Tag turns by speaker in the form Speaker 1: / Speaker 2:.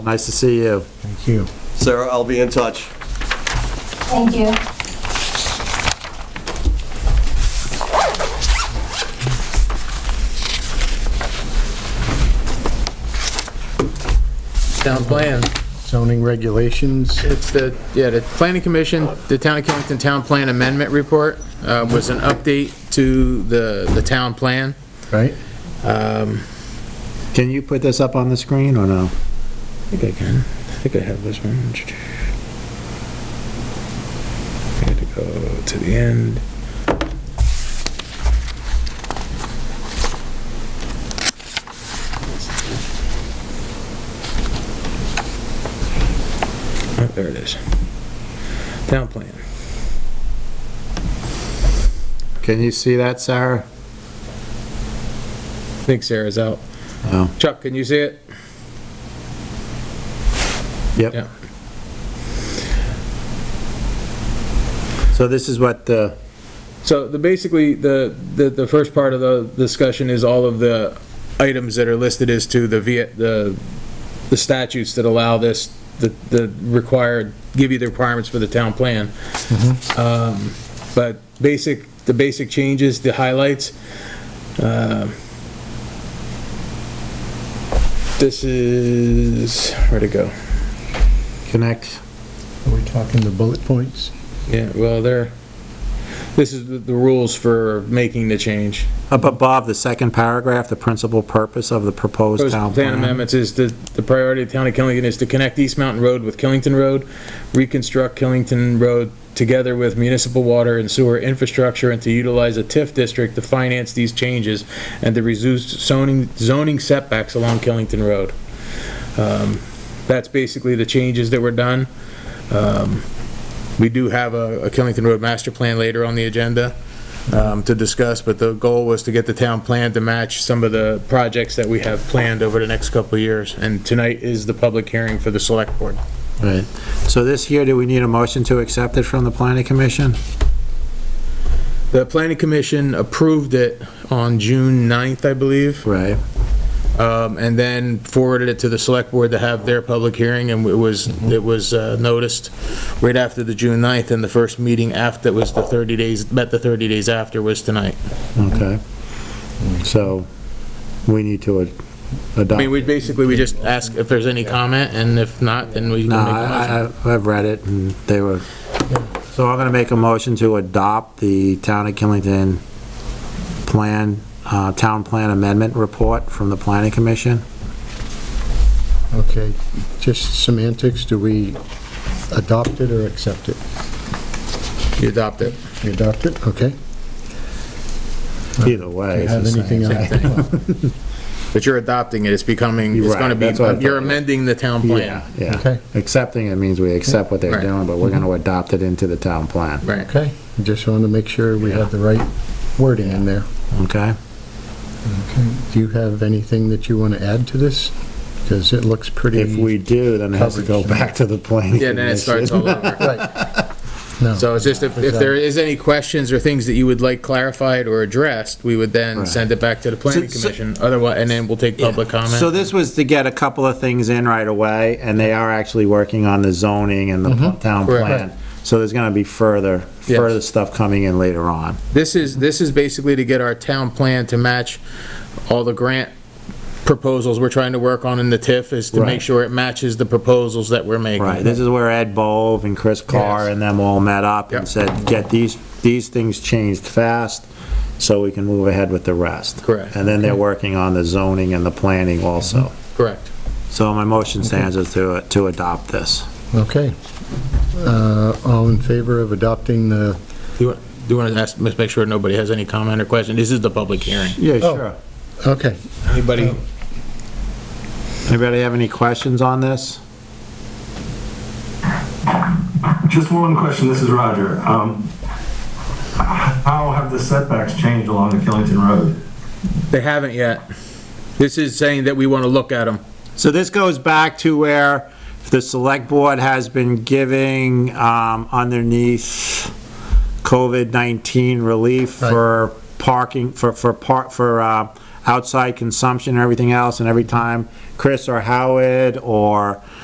Speaker 1: Nice to see you.
Speaker 2: Thank you.
Speaker 3: Sarah, I'll be in touch.
Speaker 4: Thank you.
Speaker 5: Town plan,
Speaker 2: Zoning regulations,
Speaker 5: it's the, yeah, the planning commission, the town of Killington Town Plan Amendment Report uh, was an update to the, the town plan.
Speaker 2: right?
Speaker 1: Can you put this up on the screen or no?
Speaker 5: I think I can. I think I have this one. I had to go to the end. Oh, There it is. Town plan.
Speaker 1: Can you see that, Sarah?
Speaker 5: I think Sarah's out.
Speaker 1: Oh,
Speaker 5: Chuck, can you see it?
Speaker 1: yep.
Speaker 5: Yeah.
Speaker 1: So this is what the,
Speaker 5: So the, basically, the, the, the first part of the discussion is all of the items that are listed as to the Viet, the, the statutes that allow this, the, the required, give you the requirements for the town plan. Um, But basic, the basic changes, the highlights. uh, This is, where'd it go?
Speaker 1: connect,
Speaker 2: Are we talking the bullet points?
Speaker 5: Yeah, well, there, this is the, the rules for making the change.
Speaker 1: up above, the second paragraph, the principal purpose of the proposed town
Speaker 5: Proposed plan
Speaker 1: plan.
Speaker 5: amendments is the, the priority of town of Killington is to connect East Mountain Road with Killington Road, reconstruct Killington Road together with municipal water and sewer infrastructure, and to utilize a TIF district to finance these changes, and to reduce zoning, zoning setbacks along Killington Road. Um, That's basically the changes that were done. Um, We do have a a Killington Road master plan later on the agenda um, to discuss, but the goal was to get the town plan to match some of the projects that we have planned over the next couple of years. And tonight is the public hearing for the select board.
Speaker 1: Right. So this here, do we need a motion to accept it from the planning commission?
Speaker 5: The planning commission approved it on June 9th, I believe,
Speaker 1: Right.
Speaker 5: um, and then forwarded it to the select board to have their public hearing, and it was, it was uh, noticed right after the June 9th, and the first meeting after was the 30 days, met the 30 days after was tonight.
Speaker 1: Okay. So we need to ad- adopt.
Speaker 5: I mean, we basically, we just ask if there's any comment, and if not, then we can
Speaker 1: No,
Speaker 5: make a motion.
Speaker 1: I, I- I've read it, and they were, so I'm gonna make a motion to adopt the Town of Killington Plan, uh, Town Plan Amendment Report from the Planning Commission.
Speaker 2: Okay, just semantics, do we adopt it or accept it?
Speaker 5: You adopt it.
Speaker 2: We adopt it, okay.
Speaker 1: Either way. it's
Speaker 2: Have
Speaker 1: the same.
Speaker 2: anything else?
Speaker 5: But you're adopting it, it's becoming, it's
Speaker 1: Right,
Speaker 5: gonna be,
Speaker 1: that's what I thought.
Speaker 5: you're amending the
Speaker 1: Yeah,
Speaker 5: town plan.
Speaker 1: yeah.
Speaker 2: Okay.
Speaker 1: Accepting it means we accept what they're
Speaker 5: Right.
Speaker 1: doing, but we're gonna adopt it into the town plan,
Speaker 5: Right.
Speaker 2: Okay, just want to make sure we have the right wording in there.
Speaker 1: okay?
Speaker 2: Do you have anything that you want to add to this? Because it looks pretty...
Speaker 1: If we do, then it has to go
Speaker 2: Coverage.
Speaker 1: back to the planning
Speaker 5: Yeah, then it starts
Speaker 1: commission.
Speaker 5: all over.
Speaker 2: Right. No.
Speaker 5: So it's just if,
Speaker 1: uh,
Speaker 5: if there is any questions or things that you would like clarified or addressed, we would then
Speaker 1: Right.
Speaker 5: send it back to the planning
Speaker 1: So- so-
Speaker 5: commission, otherwise, and then we'll take public
Speaker 1: So
Speaker 5: comment.
Speaker 1: this was to get a couple of things in right away, and they are actually working on the zoning and the town
Speaker 5: Mm-hmm. Correct.
Speaker 1: plan. So there's gonna be further,
Speaker 5: Yes.
Speaker 1: further stuff coming in later on.
Speaker 5: This is, this is basically to get our town plan to match all the grant proposals we're trying to work on in the TIF, is to
Speaker 1: Right.
Speaker 5: make sure it matches the proposals that we're making.
Speaker 1: Right, this is where Ed Bove and Chris Carr
Speaker 5: Yes.
Speaker 1: and them all met up and
Speaker 5: Yep.
Speaker 1: said, get these, these things changed fast, so we can move ahead with the rest.
Speaker 5: Correct. Mm-hmm.
Speaker 1: And then they're working on the zoning and the planning also.
Speaker 5: Correct.
Speaker 1: So my motion stands is to, to adopt this.
Speaker 2: Okay. Uh, All in favor of adopting the...
Speaker 5: Do you want, do you want to ask, make sure nobody has any comment or question? This is the public hearing.
Speaker 1: Yeah,
Speaker 2: Oh. Okay,
Speaker 5: Anybody?
Speaker 1: Anybody have any questions on this?
Speaker 6: Just one question, this is Roger. Um, How have the setbacks changed along the Killington Road?
Speaker 5: They haven't yet. This is saying that we want to look at them.
Speaker 1: So this goes back to where the select board has been giving um, underneath COVID-19 relief for parking, for, for part, for uh, outside consumption and everything else, and every time Chris or Howard or